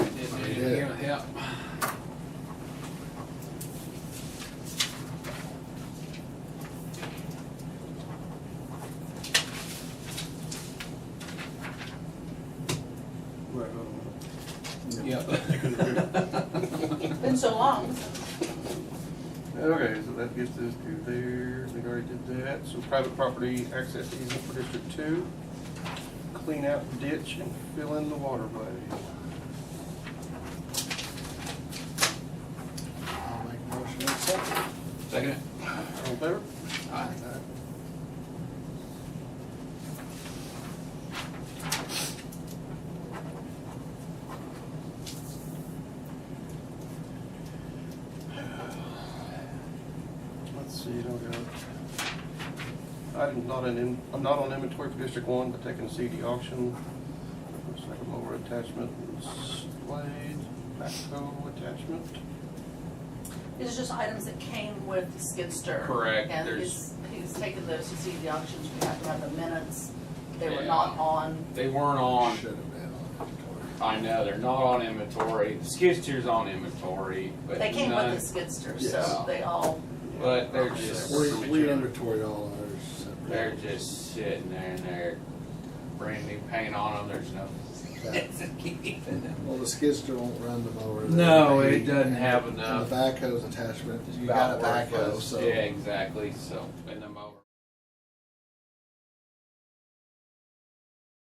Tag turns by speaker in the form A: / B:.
A: up.
B: Right, oh,
A: Yep.
C: Been so long.
B: Okay, so that gets us to there, we already did that, so private property access easement for District Two. Clean out ditch and fill in the waterway.
D: I'll make a motion to accept it.
A: Second it.
B: All in favor?
A: Aye.
B: Let's see, don't go. I'm not in, I'm not on inventory for District One, but taking a CD auction. Looks like a mower attachment, blade, backhoe attachment.
C: It's just items that came with the skid steer.
A: Correct,
C: And
A: there's-
C: he's, he's taken those, you see the auctions, we have to have the minutes. They were
A: Yeah.
C: not on,
A: They weren't on,
D: Should have been on inventory.
A: I know, they're not on inventory. Skid steer's on inventory, but
C: they came with
A: none-
C: the skid steer,
A: Yes.
C: so they all,
A: But they're just,
D: We, we inventoried all ours separately.
A: they're just sitting there and they're brand new paint on them, there's no.
D: Well, the skidster won't run the mower.
A: No,
D: They-
A: it doesn't have
D: and
A: enough.
D: The backhoe's attachment, you got a
A: About
D: backhoe,
A: worthless.
D: so.
A: Yeah, exactly, so, and the mower.